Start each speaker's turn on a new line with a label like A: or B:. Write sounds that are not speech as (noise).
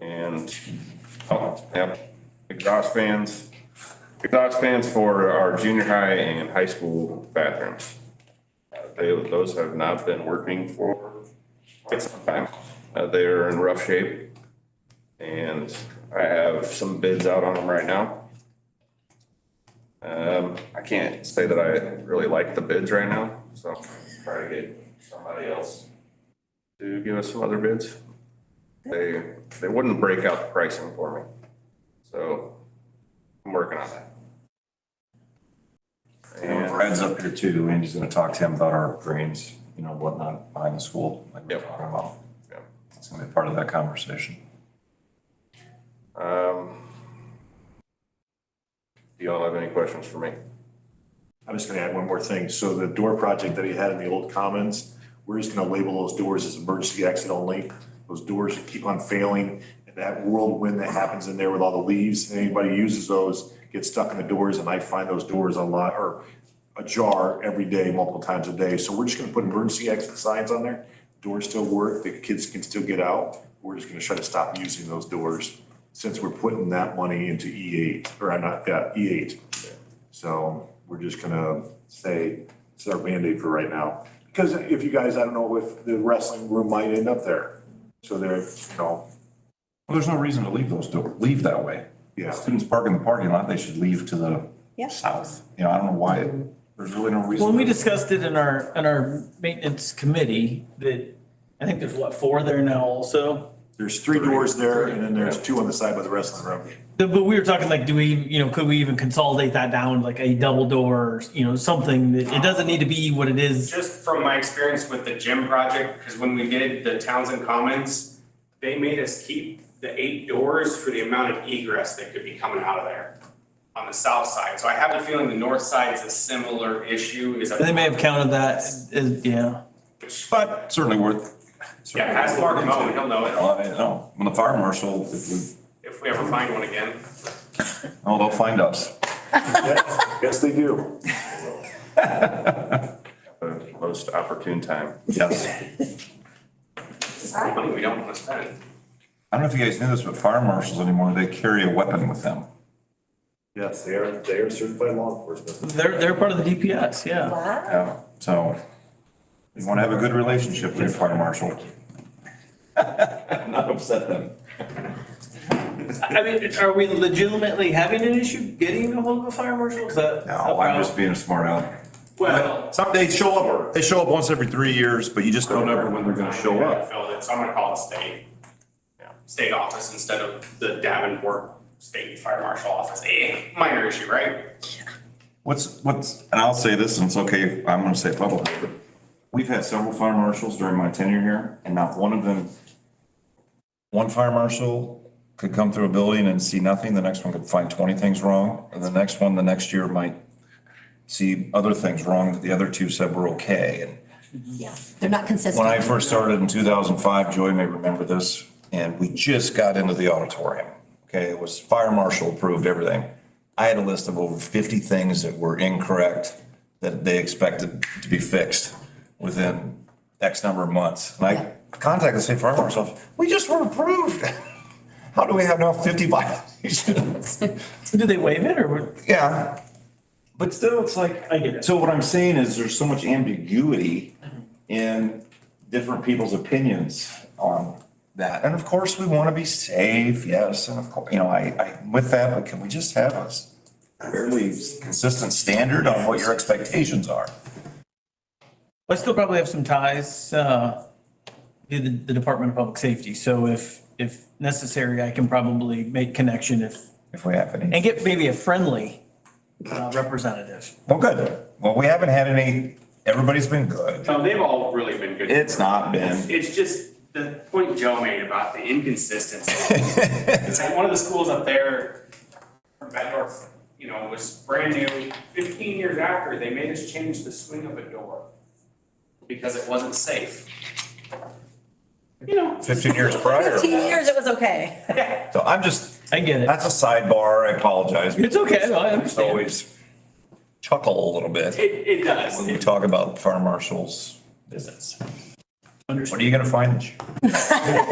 A: and, oh, yep, exhaust fans. Exhaust fans for our junior high and high school bathrooms. Uh, They, those have not been working for quite some time. Uh, they are in rough shape. And I have some bids out on them right now. Um, I can't say that I really like the bids right now, so I'll try to get somebody else to give us some other bids. They, they wouldn't break out the pricing for me. So I'm working on that.
B: And
A: And
B: Brad's up here too. Andy's gonna talk to him about our drains, you know, whatnot behind the school, like we we're
A: Yep.
B: talking about.
A: Yep.
B: It's gonna be part of that conversation.
A: Um, Do y'all have any questions for me?
C: I'm just gonna add one more thing. So the door project that he had in the old commons, we're just gonna label those doors as emergency exit only. Those doors keep on failing and that whirlwind that happens in there with all the leaves, anybody who uses those, gets stuck in the doors and I find those doors a lot, or ajar every day, multiple times a day. So we're just gonna put emergency exit signs on there. Doors still work, the kids can still get out. We're just gonna try to stop using those doors since we're putting that money into E eight, or I'm not, yeah, E eight. So we're just gonna say, it's our Band-Aid for right now. Because if you guys, I don't know if the wrestling room might end up there. So there, you know,
B: Well, there's no reason to leave those doors, leave that way.
C: Yeah.
B: Students park in the parking lot, they should leave to the
D: Yeah.
B: south. You know, I don't know why, there's really no reason.
E: When we discussed it in our, in our maintenance committee, that, I think there's what, four there now also?
C: there's three doors there and then there's two on the side by the wrestling (laughs) room.
E: The- But we were talking like, do we, you know, could we even consolidate that down like a double door, or, you know, something that, it doesn't need to be what it is.
F: Just from my experience with the gym project, because when we did the Townsend Commons, they made us keep the eight doors for the amount of egress that could be coming out of there on the south side. So I have a feeling the north side's a similar issue is.
E: They may have counted that as, yeah.
B: But certainly worth.
F: Yeah, ask Mark Moen, he'll know it
B: Well, I know, when the fire marshal, if we,
F: if we ever find one again.
B: oh, they'll find us.
C: Yes, they do.
A: The most opportune time.
B: Yes.
F: Money we don't want to spend.
B: I don't know if you guys knew this, but fire marshals anymore, they carry a weapon with them.
C: Yes, they are, they are certified law enforcement.
E: They're, they're part of the DPS, yeah.
D: Wow.
B: Yeah. So you want to have a good relationship with your fire marshal. (laughs) Not upset them.
E: I mean, are we legitimately having an issue getting a hold of a fire marshal? Is that?
B: No, I'm just being a smart aleck.
F: Well.
B: Some, they show up, they show up once every three years, but you just don't ever when they're gonna show up.
F: Filled it, so I'm gonna call the state. State office instead of the Davenport State Fire Marshal Office. Eh, minor issue, right?
B: What's, what's, and I'll say this, and it's okay, I'm gonna say it publicly, but we've had several fire marshals during my tenure here, and not one of them, one fire marshal could come through a building and see nothing, the next one could find twenty things wrong, and the next one, the next year might see other things wrong that the other two said were okay, and
D: Yeah, they're not consistent.
B: when I first started in 2005, Joy may remember this, and we just got into the auditorium. Okay, it was fire marshal approved, everything. I had a list of over 50 things that were incorrect that they expected to be fixed within X number of months. And I contacted the state fire marshal, office, we just were approved. (laughs) How do we have now 50 violations?
E: Do they waive it or what?
B: Yeah. But still, it's like,
E: I get it. Mm-hmm.
B: so what I'm saying is there's so much ambiguity in different people's opinions on that. And of course, we want to be safe, yes, and of course, you know, I, I, with that, but can we just have a fairly consistent standard on what your expectations are?
E: I still probably have some ties, uh, to the, the Department of Public Safety, so if, if necessary, I can probably make connection if,
B: If we have any.
E: and get maybe a friendly, uh, representative.
B: Well, good. Well, we haven't had any, everybody's been good.
F: No, they've all really been good.
B: It's not been.
F: It's just the point Joe made about the
B: (laughs)
F: inconsistency. It's like one of the schools up there, Bedworth, you know, was brand new. Fifteen years after, they made us change the swing of a door because it wasn't safe. You know,
B: 15 years prior.
D: Fifteen years, it was okay.
B: So I'm just,
E: I get it.
B: that's a sidebar. I apologize.
E: It's okay, no, I
B: just
E: understand.
B: always chuckle a little bit
F: it, it does.
B: when we talk about fire marshals visits.
E: Understand.
B: What are you gonna find?